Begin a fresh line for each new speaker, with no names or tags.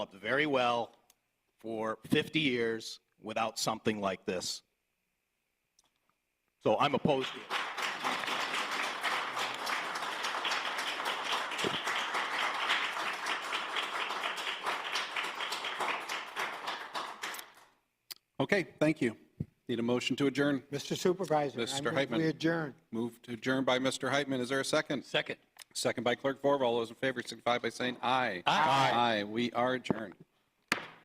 up very well for 50 years without something like this. So I'm opposed to it.
Okay, thank you. Need a motion to adjourn.
Mr. Supervisor. I
Mr.
move
Heitman.
We adjourn.
Moved to adjourn by Mr. Heitman. Is there a second?
Second.
Second by Clerk Vorval. All those in favor signify by saying aye. Aye. Aye. We are adjourned.